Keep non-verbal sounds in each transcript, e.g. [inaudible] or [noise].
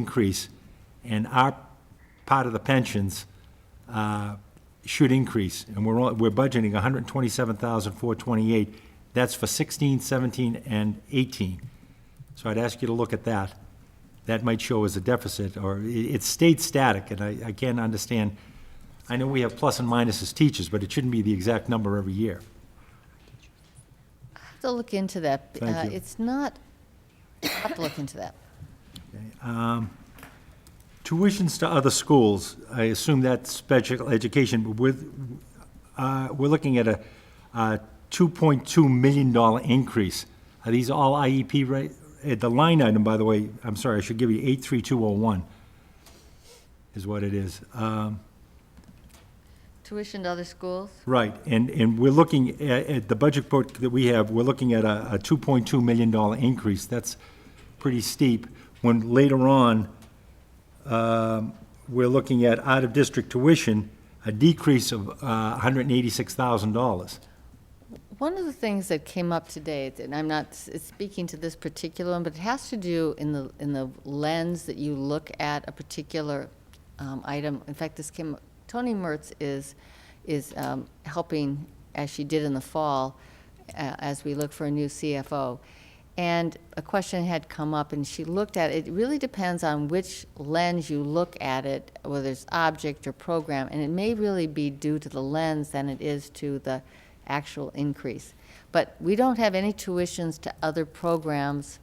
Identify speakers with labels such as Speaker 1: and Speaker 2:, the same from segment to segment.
Speaker 1: increase, and our part of the pensions uh, should increase, and we're, all- we're budgeting $127,428. That's for 16, 17, and 18. So I'd ask you to look at that. That might show as a deficit, or i- it stayed static, and I, I can't understand. I know we have plus and minus as teachers, but it shouldn't be the exact number every year.
Speaker 2: have to look into that.
Speaker 1: Thank
Speaker 2: Uh,
Speaker 1: you.
Speaker 2: It's not, I have to look into that.
Speaker 1: Tuitions to other schools, I assume that's special education, but with, uh, we're looking at a uh, $2.2 million increase. Are these all IEP rate? eh, The line item, by the way, I'm sorry, I should give you 83201 is what it is. Um,
Speaker 2: Tuition to other schools?
Speaker 1: Right, and, and we're looking at, at the budget book that we have, we're looking at a, a $2.2 million increase. That's pretty steep, when later on, um, we're looking at out-of-district tuition, a decrease of uh, $186,000.
Speaker 2: One of the things that came up today, and I'm not s- speaking to this particular one, but it has to do in the, in the lens that you look at a particular um, item. In fact, this came, Tony Mertz is, is um, helping, as she did in the fall, uh, as we look for a new CFO. And a question had come up, and she looked at it. It really depends on which lens you look at it, whether it's object or program, and it may really be due to the lens than it is to the actual increase. But we don't have any tuitions to other programs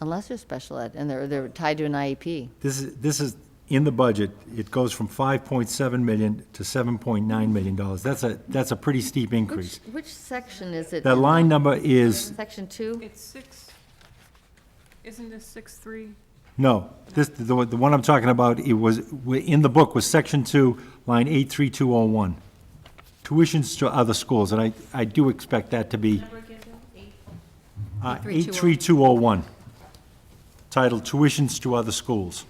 Speaker 2: unless they're special ed and they're, they're tied to an E IEP.
Speaker 1: This is, this is in the budget, it goes from 5.7 million to 7.9 million dollars. That's a, that's a pretty steep
Speaker 2: Which,
Speaker 1: increase.
Speaker 2: which section is it?
Speaker 1: That
Speaker 2: in?
Speaker 1: line number is,
Speaker 2: Section two?
Speaker 3: It's six, isn't this six, three?
Speaker 1: No, this, the, one- the one I'm talking about, it was, in the book was section two, line eight three two oh one. Tuitions to other schools, and I, I do expect that to be. uh, Eight three two oh one, titled Tuitions to Other Schools.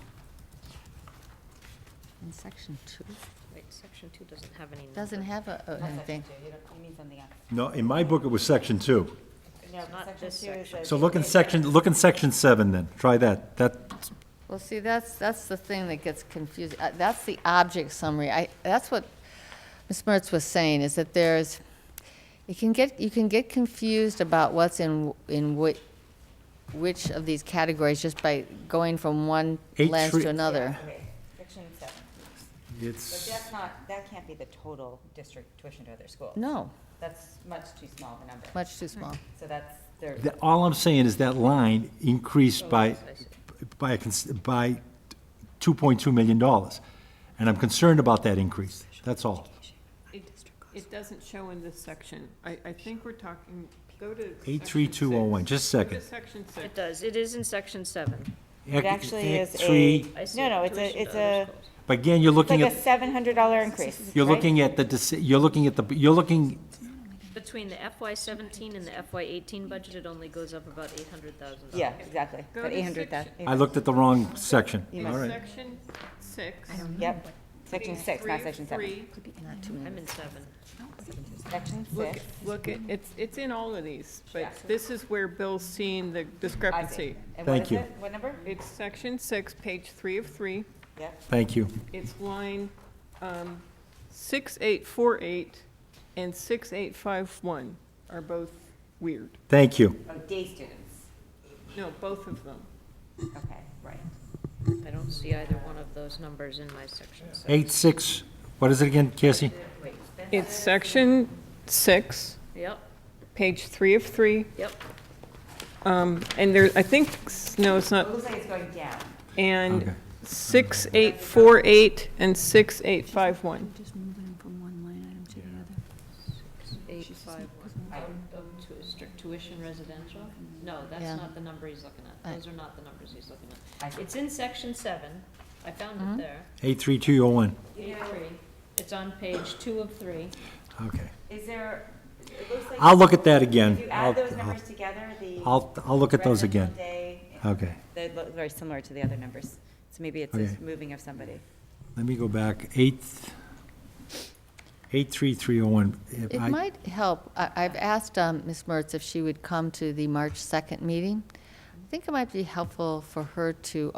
Speaker 2: In section two?
Speaker 4: Wait, section two doesn't have any.
Speaker 2: Doesn't have a, a- anything.
Speaker 1: No, in my book, it was section two.
Speaker 4: Not this section.
Speaker 1: So look in section, look in section seven then, try that, that,
Speaker 2: Well, see, that's, that's the thing that gets confusing. Uh, That's the object summary. I, that's what Ms. Mertz was saying, is that there's, you can get, you can get confused about what's in, in which, which of these categories just by going from one
Speaker 1: Eight
Speaker 2: lens
Speaker 1: three-
Speaker 2: to another.
Speaker 5: Okay, section seven. But
Speaker 1: it's,
Speaker 5: that's not, that can't be the total district tuition to other schools.
Speaker 2: No,
Speaker 5: That's much too small of a number.
Speaker 2: much too small.
Speaker 5: So that's, there,
Speaker 1: that- all I'm saying is that line increased by, by, a cons- by two point two million dollars. And I'm concerned about that increase, that's all.
Speaker 3: It, it doesn't show in this section. I, I think we're talking, go to. section
Speaker 1: 83201,
Speaker 3: six.
Speaker 1: just a second.
Speaker 3: Go to section six.
Speaker 4: It does, it is in section seven.
Speaker 5: it actually is a,
Speaker 1: Three,
Speaker 4: I see
Speaker 5: no,
Speaker 4: it,
Speaker 5: no, it's
Speaker 4: tuition
Speaker 5: a, it's
Speaker 4: to other
Speaker 5: a,
Speaker 4: schools.
Speaker 1: but again, you're
Speaker 5: it's like
Speaker 1: looking
Speaker 5: a
Speaker 1: at,
Speaker 5: seven hundred dollar increase.
Speaker 1: [laughs] you're
Speaker 5: right?
Speaker 1: looking at the, deci- you're looking at the, you're looking,
Speaker 4: Between the FY seventeen and the FY eighteen budget, it only goes up about eight hundred thousand dollars.
Speaker 5: Yeah, exactly.
Speaker 3: Go
Speaker 5: But
Speaker 3: to
Speaker 5: eight hundred thousand.
Speaker 3: section-
Speaker 1: I looked at the wrong section.
Speaker 3: It's
Speaker 1: All right.
Speaker 3: Section six.
Speaker 5: Yep, section six, not
Speaker 3: three,
Speaker 5: section seven.
Speaker 3: three.
Speaker 4: I'm in seven.
Speaker 5: Section
Speaker 3: Look,
Speaker 5: six,
Speaker 3: look, it- it's, it's in all of these, but
Speaker 5: Yeah.
Speaker 3: this is where Bill's seeing the
Speaker 5: I see.
Speaker 3: discrepancy.
Speaker 5: And what
Speaker 1: Thank
Speaker 5: is
Speaker 1: you.
Speaker 5: it? What number?
Speaker 3: It's section six, page three of three.
Speaker 5: Yep,
Speaker 1: Thank you.
Speaker 3: It's line, um, six, eight, four, eight, and six, eight, five, one are both weird.
Speaker 1: Thank you.
Speaker 5: oh, day students,
Speaker 3: No, both of them.
Speaker 5: okay, right.
Speaker 4: I don't see either one of those numbers in my section. seven.
Speaker 1: Eight, six, what is it again, Cassie?
Speaker 3: It's section six,
Speaker 4: Yep,
Speaker 3: page three of three,
Speaker 4: yep.
Speaker 3: um, and there, I think, s- no, it's
Speaker 5: It
Speaker 3: not,
Speaker 5: looks like it's going down.
Speaker 1: Okay.
Speaker 3: and six, eight, four, eight, and six, eight, five, one.
Speaker 6: Just moving from one line item to the other.
Speaker 4: Eight, five, one. Of tu- strict tuition residential? No,
Speaker 2: Yeah.
Speaker 4: that's not the number he's looking at.
Speaker 2: I-
Speaker 4: Those are not the numbers he's looking
Speaker 5: I
Speaker 4: at. It's in section seven. I
Speaker 2: Mm-hmm.
Speaker 4: found it there.
Speaker 1: Eight, three, two, oh, one.
Speaker 4: Page three. It's on page two of three.
Speaker 1: Okay.
Speaker 5: Is there, it looks like.
Speaker 1: I'll look at that
Speaker 5: If
Speaker 1: again.
Speaker 5: you
Speaker 1: I'll,
Speaker 5: add those
Speaker 1: I'll-
Speaker 5: numbers together, the.
Speaker 1: I'll, I'll look at those again.
Speaker 5: residential day
Speaker 1: Okay.
Speaker 5: They look very similar to the other numbers. So maybe it's
Speaker 1: Okay.
Speaker 5: just moving of somebody.
Speaker 1: Let me go back. Eight, eight, three, three, oh, one. If
Speaker 2: It
Speaker 1: I-
Speaker 2: might help, I, I've asked um, Ms. Mertz if she would come to the March 2nd meeting. I think it might be helpful for her to